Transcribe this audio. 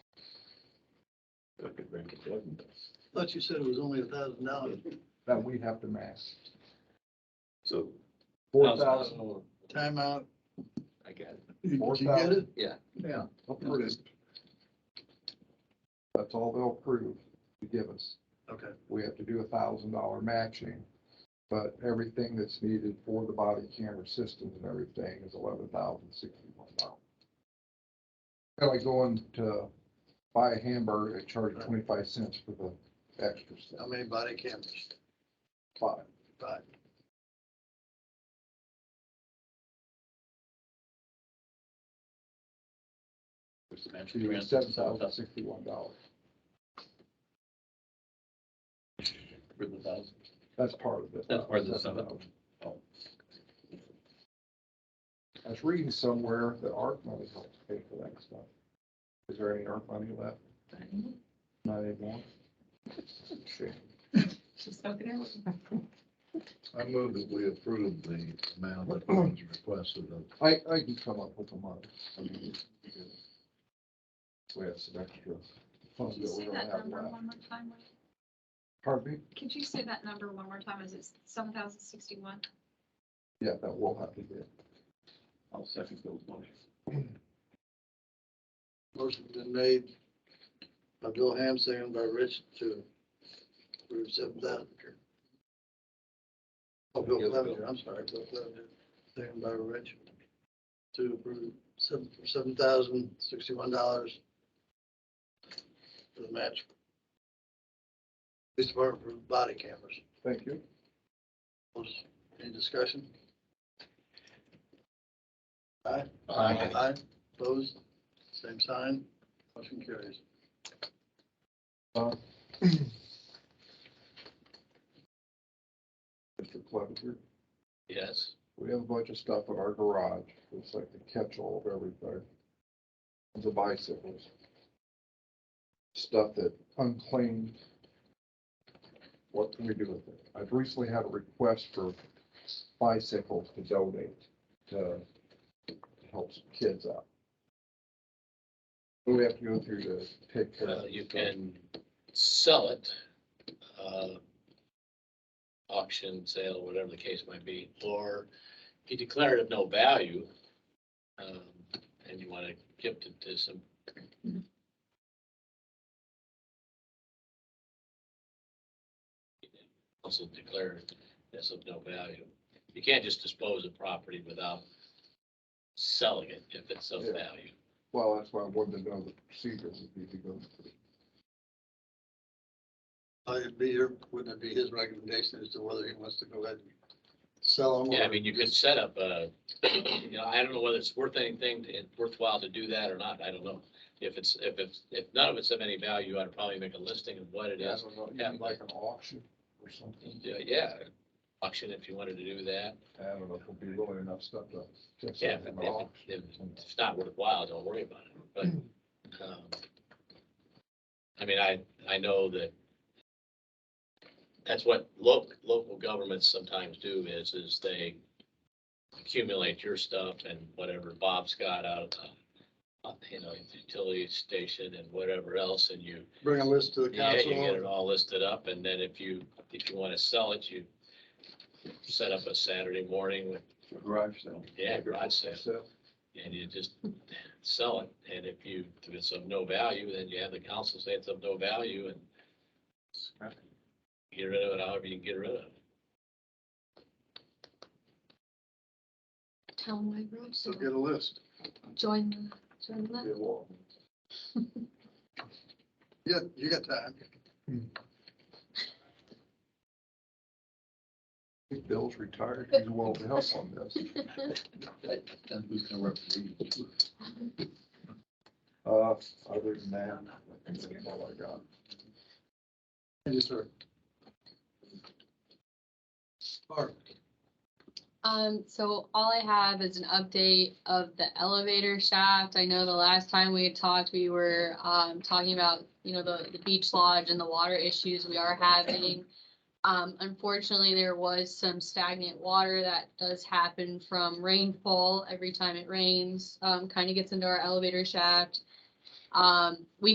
Thought you said it was only a thousand dollars, that we have to match. So. Four thousand, timeout. I got it. Did Four you get it? thousand. Yeah. Yeah. approved. That's all they'll approve to give us. Okay, We have to do a thousand dollar matching. But everything that's needed for the body camera systems and everything is eleven thousand sixty-one dollars. Kind of like going to buy a hamburger and charge twenty-five cents for the extra how stuff. many body cameras? Five. Five. Seven thousand sixty-one dollars. That's part of it. That's part of the Seven seven. thousand. Oh. I was reading somewhere that ARC money helps pay for that stuff. Is there any ARC money left? Not anymore? Okay. Just soak it in. I move that we approve the amount that was requested of I, I can come up with a month. I mean, We have some extra funds Could you that say we don't that have number left. one more time? Pardon me? Could you say that number one more time? Is it seven thousand sixty-one? Yeah, that will have to be. I'll second those motions. Motion's been made by Bill Ham, second by Rich to approve seven thousand. Oh, Bill Clevenger, I'm sorry, Bill Clevenger, second by Rich to approve seven, for seven thousand sixty-one dollars for the match. Police Department for body cameras. Thank you. Any discussion? Aye. Aye. Aye, opposed, same sign, motion carries. Uh, Mr. Clevenger, Yes. we have a bunch of stuff in our garage. It's like the catch-all of everything. The bicycles. Stuff that unclaimed. What can we do with it? I've recently had a request for bicycles to donate to to help some kids out. What do we have to go through to take care of? Uh, you this stuff? can sell it, uh, auction, sale, whatever the case might be, or if you declare it of no value, um, and you want to gift it to some, also declare it as of no value. You can't just dispose of property without selling it if it's of Yeah. value. Well, that's why I wanted to know the procedures would be to go through. Uh, It'd be your, wouldn't it be his recommendation as to whether he wants to go ahead and sell them? Yeah, I mean, you could set up a, you know, I don't know whether it's worth anything, to- worthwhile to do that or not, I don't know. If it's, if it's, if none of it's of any value, I'd probably make a listing of what it I is. don't know, Yeah. you need like an auction or something. Yeah, Yeah, auction if you wanted to do that. I don't know if it'll be really enough stuff to. fix Yeah, up if, an if- if auction. it's not worthwhile, don't worry about it, but, um, I mean, I, I know that that's what local, local governments sometimes do is, is they accumulate your stuff and whatever Bob's got out of, the, uh, you know, utility station and whatever else, and you, Bring a list to the yeah, you get it council. all listed up, and then if you, if you want to sell it, you set up a Saturday morning with, Garage sale. yeah, garage sale So, and you just sell it. And if you, if it's of no value, then you have the council say it's of no value and get rid of it however you can get rid of it. Townwide road, So so get a list. join, the- join the be a law. Yeah, you got time. I think Bill's retired, he's willing to help on this. list. Then who's gonna represent you? Uh, other than that, that's all I got. Thank you, sir. Mark, Um, so all I have is an update of the elevator shaft. I know the last time we had talked, we were, um, talking about, you know, the, the beach lodge and the water issues we are having. Um, unfortunately, there was some stagnant water that does happen from rainfall every time it rains, um, kind of gets into our elevator shaft. Um, we